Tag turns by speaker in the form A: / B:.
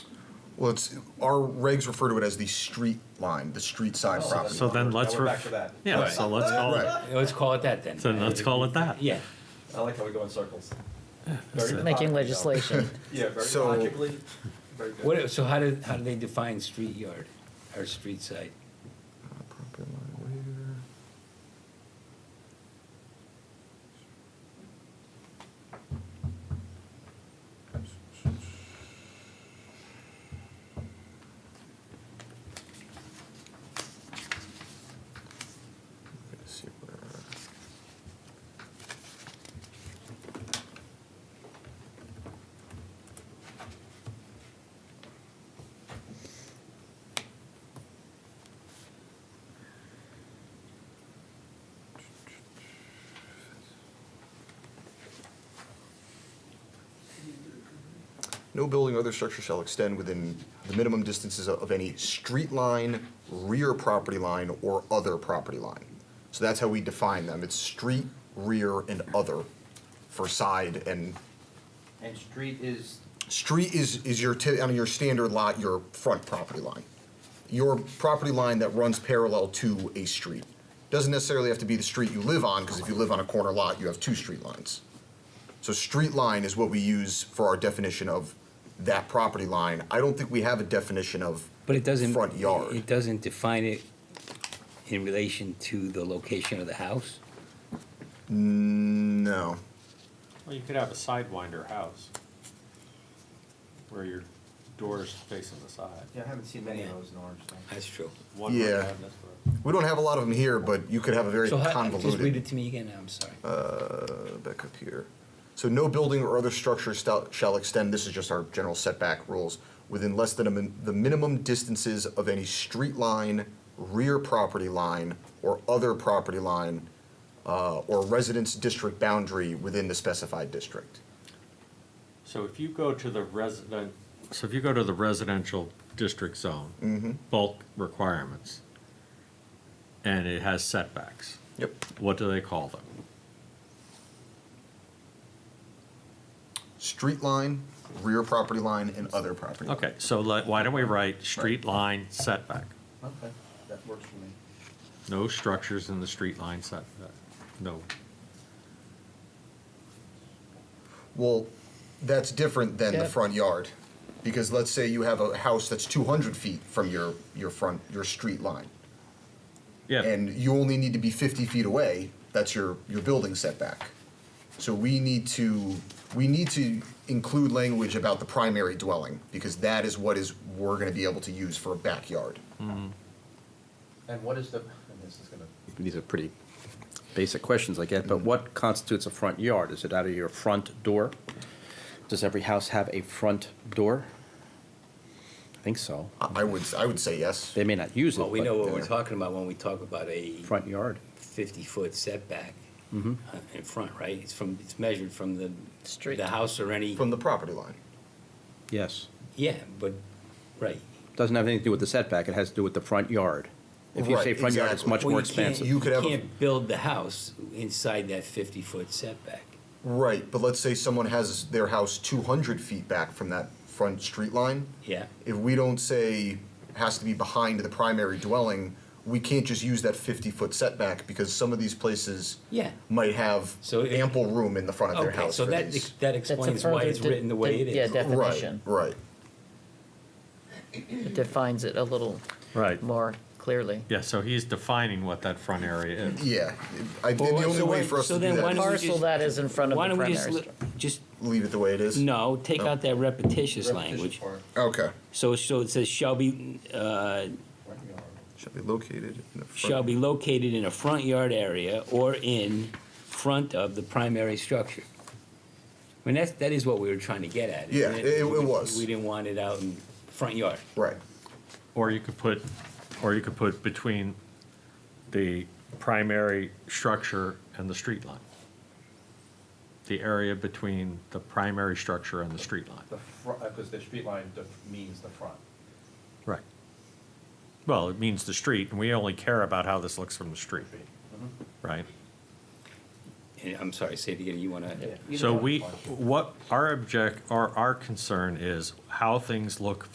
A: Well, it's, our regs refer to it as the street line, the street
B: Oh,
A: side property.
C: So then let's.
B: Now we're
C: ref-
B: back to that.
C: Yeah, so let's call it,
A: Right,
D: Let's call it that then.
C: so let's call it that.
D: Yeah.
B: I like how we go in circles. Very methodically,
E: making
B: though.
E: legislation.
B: Yeah, very
A: So-
B: logically, very good.
D: What, so how do, how do they define street yard or street side?
A: See where- No building or other structure shall extend within the minimum distances of any street line, rear property line, or other property line. So that's how we define them. It's street, rear, and other for side and,
F: And street is,
A: street is, is your, ti- on your standard lot, your front property line. Your property line that runs parallel to a street. Doesn't necessarily have to be the street you live on, because if you live on a corner lot, you have two street lines. So street line is what we use for our definition of that property line. I don't think we have a definition of
D: But it doesn't.
A: front yard.
D: It doesn't define it in relation to the location of the house?
A: No.
G: Well, you could have a sidewinder house where your door's facing the side.
F: yeah, I haven't seen many of those in Orange County.
D: That's true.
G: One might
A: Yeah.
G: have this one.
A: We don't have a lot of them here, but you could have a very
D: So how, just read
A: convoluted
D: it to me again, I'm sorry.
A: uh, back up here. So no building or other structure stout- shall extend, this is just our general setback rules, within less than a min- the minimum distances of any street line, rear property line, or other property line, uh, or residence district boundary within the specified district.
G: So if you go to the resident, so if you go to the residential district zone,
B: Mm-hmm.
G: bulk requirements, and it has setbacks,
A: Yep.
G: what do they call them?
A: Street line, rear property line, and other property. line.
G: Okay, so like, why don't we write street line setback?
F: Okay, that works for me.
G: No structures in the street line setback, no.
A: Well, that's different than the
E: Yeah.
A: front yard, because let's say you have a house that's two hundred feet from your, your front, your street line.
G: Yeah,
A: And you only need to be fifty feet away, that's your, your building setback. So we need to, we need to include language about the primary dwelling, because that is what is, we're gonna be able to use for a backyard.
F: And what is the, and this is gonna,
H: these are pretty basic questions, I get, but
D: Mm-hmm.
H: what constitutes a front yard? Is it out of your front door? Does every house have a front door? I think so.
A: I, I would, I would say yes.
H: They may not use it,
D: Well, we know
H: but
D: what we're talking about when we talk about a
H: front yard.
D: fifty-foot setback uh, in front, right? It's from, it's measured from the.
E: Street.
D: The house or any,
A: From the property line.
H: Yes.
D: yeah, but, right.
H: Doesn't have anything to do with the setback, it has to do with the front yard. If you say
A: Right,
H: front yard, it's
A: exactly.
H: much
D: Well,
H: more
D: you can't-
H: expansive.
A: You could have a-
D: can't build the house inside that fifty-foot setback.
A: Right, but let's say someone has their house two hundred feet back from that front street line.
D: Yeah.
A: if we don't say has to be behind the primary dwelling, we can't just use that fifty-foot setback because some of these places
D: Yeah.
A: might have
D: So it-
A: ample room in the front of their
D: Okay,
A: house
D: so
A: for
D: that,
A: these.
D: that
E: That's a
D: explains why
E: further
D: it's
E: de-
D: written the way it
E: de-
D: is.
E: yeah, defi-
A: Right,
E: definition.
A: right.
E: It defines it a little
G: right.
E: more clearly.
G: Yeah, so he's defining what that front area is.
A: Yeah, I, the
D: Well,
A: only
D: so
A: way
D: why-
A: for us
D: so
A: to do
D: then why
A: that
D: don't
A: is
D: we
E: Parcel
D: just-
E: that is in front of
D: Why
E: the
D: don't we
E: primary
D: just, li-
E: structure.
D: just,
A: leave it the way it is.
D: no, take out that repetitious
F: repetition
D: language.
F: part,
A: Okay.
D: So, so it says shall be, uh,
F: front yard.
A: Shall be located in the front.
D: shall be located in a front yard area or in front of the primary structure. I mean, that's, that is what we were trying to get at.
A: Yeah,
D: isn't
A: it- it was.
D: We didn't want it out in front yard.
A: Right.
G: Or you could put, or you could put between the primary structure and the street line. The area between the primary structure and the street line.
F: The front, because the street line def- means the front.
G: Right. Well, it means the street, and we only care about how this looks from the street, right?
D: And I'm sorry, say it again, you wanna?
F: Either
G: So
F: one is
G: we,
F: fine.
G: what, our object, our, our concern is how things look